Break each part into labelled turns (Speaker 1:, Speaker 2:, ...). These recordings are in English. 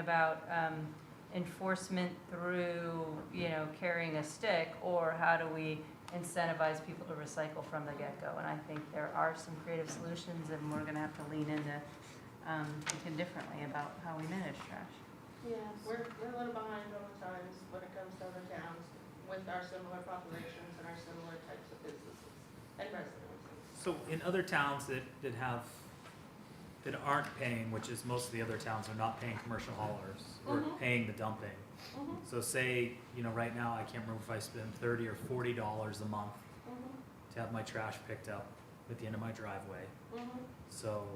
Speaker 1: about um, enforcement through, you know, carrying a stick, or how do we incentivize people to recycle from the get-go? And I think there are some creative solutions, and we're gonna have to lean into um, thinking differently about how we manage trash.
Speaker 2: Yeah, we're, we're a little behind sometimes when it comes to other towns with our similar populations and our similar types of businesses and residences.
Speaker 3: So in other towns that, that have, that aren't paying, which is most of the other towns are not paying commercial haulers or
Speaker 2: Mhm.
Speaker 3: paying the dumping.
Speaker 2: Mhm,
Speaker 3: So say, you know, right now, I can't remember if I spend thirty or forty dollars a month
Speaker 2: mhm,
Speaker 3: to have my trash picked up at the end of my driveway.
Speaker 2: mhm.
Speaker 3: So,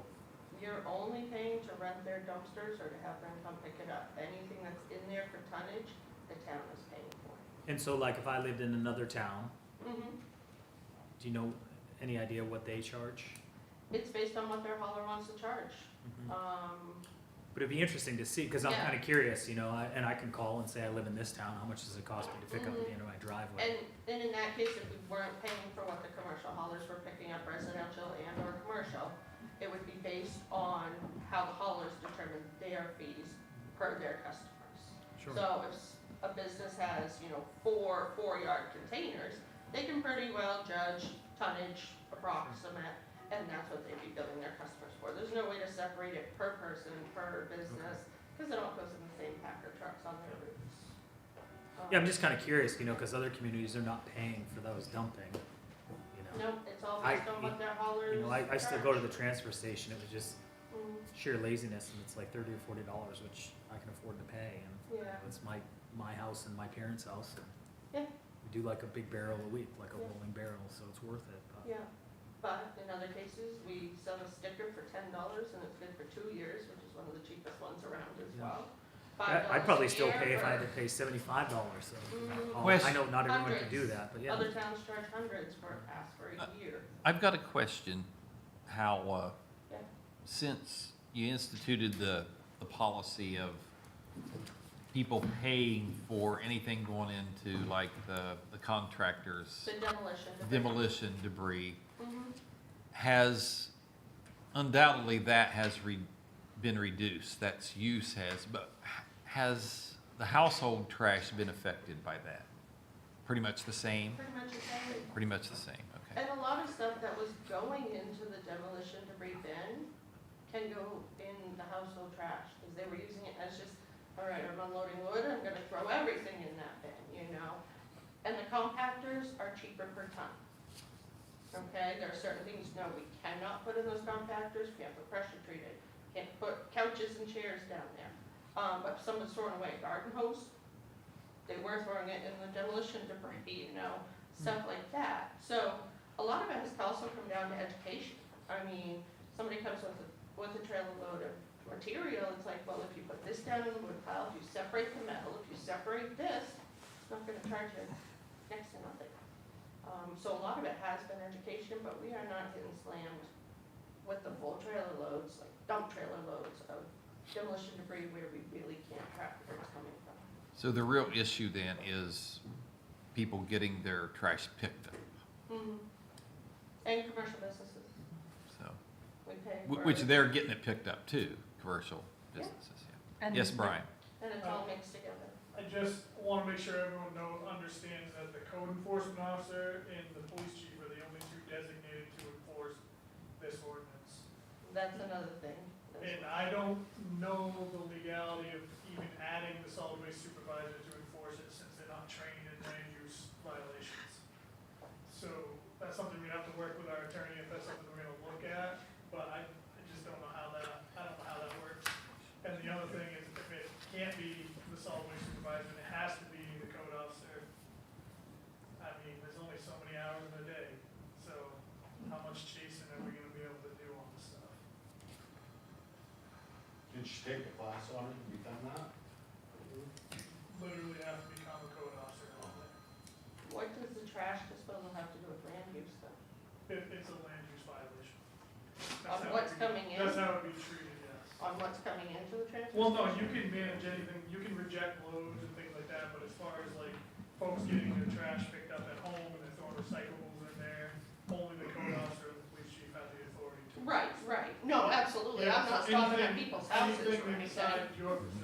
Speaker 2: You're only paying to rent their dumpsters or to have them come pick it up. Anything that's in there for tonnage, the town is paying for.
Speaker 3: and so like if I lived in another town,
Speaker 2: Mhm.
Speaker 3: do you know any idea what they charge?
Speaker 2: It's based on what their hauler wants to charge.
Speaker 3: Mhm.
Speaker 2: Um,
Speaker 3: But it'd be interesting to see, cause I'm
Speaker 2: Yeah.
Speaker 3: kinda curious, you know, I- and I can call and say I live in this town, how much does it cost me to pick up at the
Speaker 2: Mhm.
Speaker 3: end of my driveway?
Speaker 2: and, and in that case, if we weren't paying for what the commercial haulers were picking up, residential and or commercial, it would be based on how the haulers determine their fees per their customers.
Speaker 3: Sure.
Speaker 2: So if s- a business has, you know, four four-yard containers, they can pretty well judge tonnage approximate, and that's what they'd be billing their customers for. There's no way to separate it per person, per business, because it all goes in the same packer trucks on their routes.
Speaker 3: Yeah, I'm
Speaker 2: Um,
Speaker 3: just kind of curious, you know, because other communities are not paying for those dumping. You know,
Speaker 2: No, it's all
Speaker 3: I-
Speaker 2: based on what their haulers.
Speaker 3: you know, I, I still go to the
Speaker 2: charge.
Speaker 3: transfer station. It was just
Speaker 2: Mm,
Speaker 3: sheer laziness, and it's like thirty or forty dollars, which I can afford to pay, and you know,
Speaker 2: Yeah.
Speaker 3: it's my my house and my parents' house. And
Speaker 2: Yeah.
Speaker 3: We do like a big barrel a week, like a
Speaker 2: Yeah.
Speaker 3: rolling barrel, so it's worth it. But
Speaker 2: Yeah, but in other cases, we sell a sticker for ten dollars and it's good for two years, which is one of the cheapest ones around as
Speaker 3: Yeah.
Speaker 2: well.
Speaker 3: I-
Speaker 2: $5
Speaker 3: I'd probably
Speaker 2: a
Speaker 3: still
Speaker 2: year
Speaker 3: pay if I had
Speaker 2: for-
Speaker 3: to pay seventy five dollars. So you know,
Speaker 2: Mm.
Speaker 3: I'll-
Speaker 4: Wes-
Speaker 3: I know not everyone can do
Speaker 2: Hundreds.
Speaker 3: that, but yeah.
Speaker 2: Other towns charge hundreds for a pass for a year.
Speaker 4: I've got a question, how, uh,
Speaker 2: Yeah.
Speaker 4: since you instituted the, the policy of people paying for anything going into like the, the contractors,
Speaker 2: The demolition. the-
Speaker 4: demolition debris,
Speaker 2: Mhm.
Speaker 4: has, undoubtedly that has re, been reduced, that's use has, but h- has the household trash been affected by that? Pretty much the same?
Speaker 2: Pretty much the same.
Speaker 4: Pretty much the same, okay.
Speaker 2: And a lot of stuff that was going into the demolition debris bin can go in the household trash, because they were using it as just, all right, I'm unloading wood, I'm gonna throw everything in that bin, you know? And the compactors are cheaper per ton. Okay, there are certain things, no, we cannot put in those compactors, we have to pressure treat it. Can't put couches and chairs down there. Um, but someone's throwing away a garden hose, they were throwing it in the demolition debris, you know, stuff like that. So a lot of it has also come down to education. I mean, somebody comes with a, with a trailer load of material, it's like, well, if you put this down in the wood pile, if you separate the metal, if you separate this, it's not gonna charge you next to nothing. Um, so a lot of it has been education, but we are not getting slammed with the full trailer loads, like dump trailer loads of demolition debris where we really can't track where it's coming from.
Speaker 4: So the real issue then is people getting their trash picked up,
Speaker 2: Mhm. And commercial businesses,
Speaker 4: so,
Speaker 2: we pay for
Speaker 4: wh- which
Speaker 2: it,
Speaker 4: they're getting it picked up too, commercial
Speaker 2: Yeah.
Speaker 4: businesses, yeah.
Speaker 1: And-
Speaker 4: Yes, Brian?
Speaker 2: and it's all mixed together.
Speaker 5: I just want to make sure everyone know, understands that the code enforcement officer and the police chief are the only two designated to enforce this ordinance.
Speaker 2: That's another thing. That's-
Speaker 5: And I don't know the legality of even adding the solid waste supervisor to enforce it since they're not trained in land use violations. So that's something we'd have to work with our attorney if that's something we're gonna look at, but I, I just don't know how that, I don't know how that works. And the other thing is if it can't be the solid waste supervisor, then it has to be the code officer. I mean, there's only so many hours in a day, so how much chasing are we gonna be able to do on this stuff?
Speaker 6: Did she take a class on it? Have you done that?
Speaker 5: literally have to become a code officer and all that.
Speaker 2: What does the trash disposal have to do with land use though?
Speaker 5: It, it's a land use violation.
Speaker 2: On
Speaker 5: That's how
Speaker 2: what's
Speaker 5: it would be-
Speaker 2: coming in,
Speaker 5: That's how it would be treated, yes.
Speaker 2: on what's coming into the transfer?
Speaker 5: Well, no, you can manage anything, you can reject loads and things like that, but as far as like folks getting their trash picked up at home and they're throwing recyclables in there, only the code officer and the police chief have the authority to.
Speaker 2: Right, right, no, absolutely, I'm not
Speaker 5: Yeah, so
Speaker 2: stopping at
Speaker 5: anything-
Speaker 2: people's houses or anything.
Speaker 5: Anything inside your